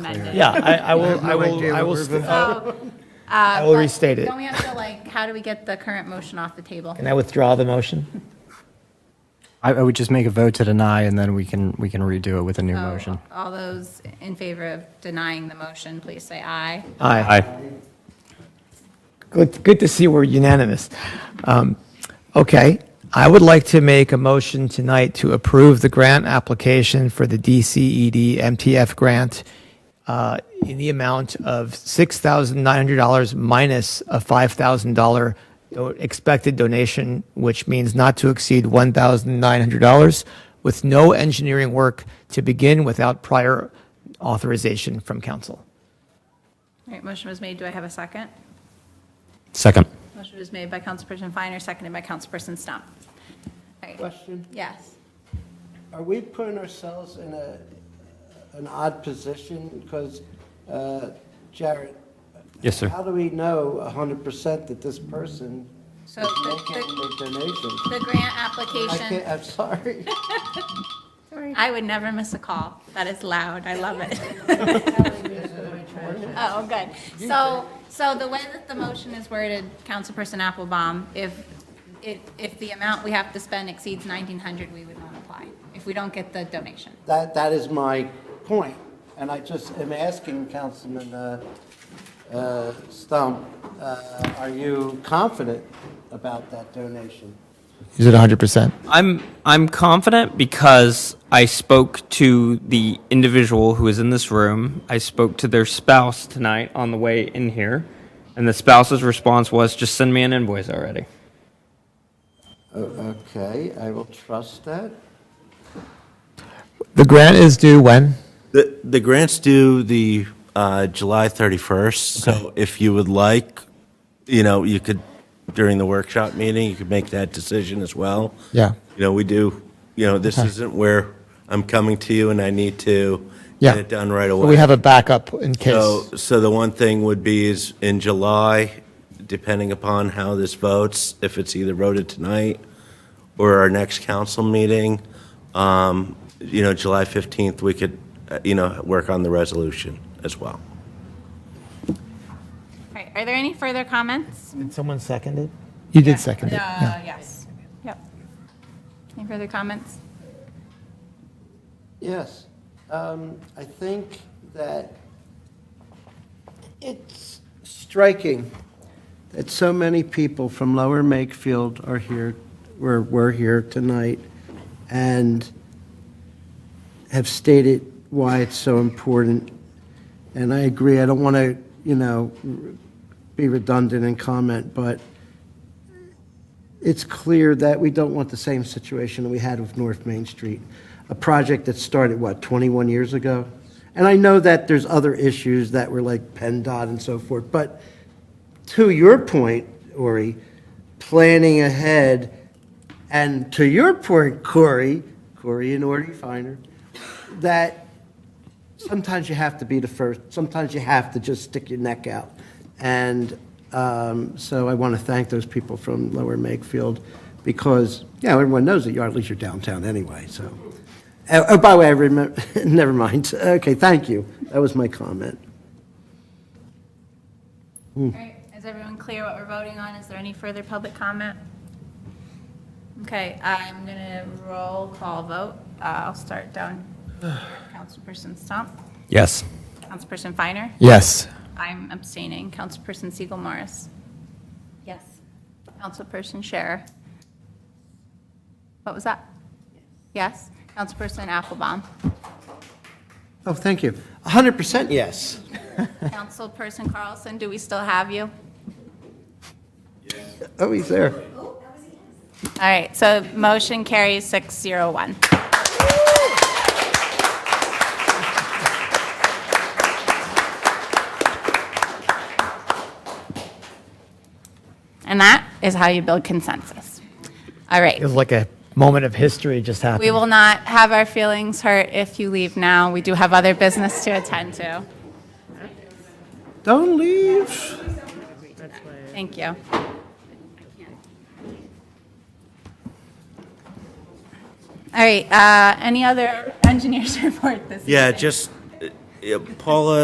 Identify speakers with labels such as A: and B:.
A: amended.
B: Yeah, I, I will, I will, I will, st- I will restate it.
A: uh, Don't we have to like, how do we get the current motion off the table?
B: Can I withdraw the motion?
C: I, I would just make a vote to deny, and then we can, we can redo it with a new motion.
A: All those in favor of denying the motion, please say aye.
B: Aye. Good, good to see we're unanimous. Um, Okay, I would like to make a motion tonight to approve the grant application for the E DCED MTF grant uh, in the amount of $6,900 minus a $5,000 do- expected donation, which means not to exceed $1,900, with no engineering work to begin without prior authorization from council.
A: All right, motion was made. Do I have a second?
C: Second.
A: Motion was made by Councilperson Finer, seconded by Councilperson Stump. All right,
D: Question,
A: Yes.
D: are we putting ourselves in a, an odd position? Because, uh, Jared.
E: Yes, sir.
D: How do we know a hundred percent that this person
A: So
D: is
A: the-
D: making
A: the
D: the donation?
A: the grant
D: I
A: application,
D: can't, I'm sorry.
A: I would never miss a call. That is loud. I love it. Oh, good. So, so the way that the motion is worded, Councilperson Applebaum, if, if, if the amount we have to spend exceeds 1,900, we would not apply, if we don't get the donation.
D: That, that is my point, and I just am asking Councilman uh, uh, Stump, uh, are you confident about that donation?
B: Is it 100%?
E: I'm I'm confident because I spoke to the individual who is in this room. I spoke to their spouse tonight on the way in here, and the spouse's response was just send me an invoice already.
D: O- Okay, I will trust that.
B: The grant is due when?
F: The, the grants due the uh, July 31st, so if you would like, you know, you could, during the workshop meeting, you could make that decision as well.
B: Yeah.
F: You know, we do, you know, this isn't where I'm coming to you and I need to
B: Yeah.
F: get it done right away.
B: We have a backup in
F: So,
B: case.
F: so the one thing would be is in July, depending upon how this votes, if it's either voted tonight or our next council meeting, um, you know, July 15th, we could, uh, you know, work on the resolution as well.
A: All right, are there any further comments? Uh,
B: Did someone second it? You did second it. yeah.
A: yes. Yep. Any further comments?
D: Yes, um, I think that it's striking that so many people from Lower Makefield are here, were, were here tonight, and have stated why it's so important. And I agree, I don't want to, you know, be redundant and comment, but it's clear that we don't want the same situation that we had with North Main Street, a project that started, what, 21 years ago? And I know that there's other issues that were like PennDOT and so forth, but to your point, Ori, planning ahead, and to your point, Corey, Corey and Ori Finer, that sometimes you have to be the first, sometimes you have to just stick your neck out. And um, so I want to thank those people from Lower Makefield because, you know, everyone knows that Yardley's your downtown anyway, so. Oh, oh, by the way, I remember, never mind. Okay, thank you. That was my comment.
A: All right, is everyone clear what we're voting on? Is there any further public comment? Okay, I'm gonna roll call vote. Uh, I'll start down. Councilperson Stump,
C: Yes.
A: Councilperson Finer,
B: Yes.
A: I'm abstaining. Councilperson Siegel Morris. Yes. Councilperson Scherer. What was that? Yes? Councilperson Applebaum.
D: Oh, thank you. 100% yes.
A: Councilperson Carlson, do we still have you?
D: Oh, he's there.
A: All right, so motion carries 601. And that is how you build consensus. All right.
B: It was like a moment of history just happened.
A: We will not have our feelings hurt if you leave now. We do have other business to attend to.
D: Don't leave.
A: Thank you. All right, uh, any other engineers report this?
F: Yeah,
A: evening?
F: just, uh, Yeah, Paula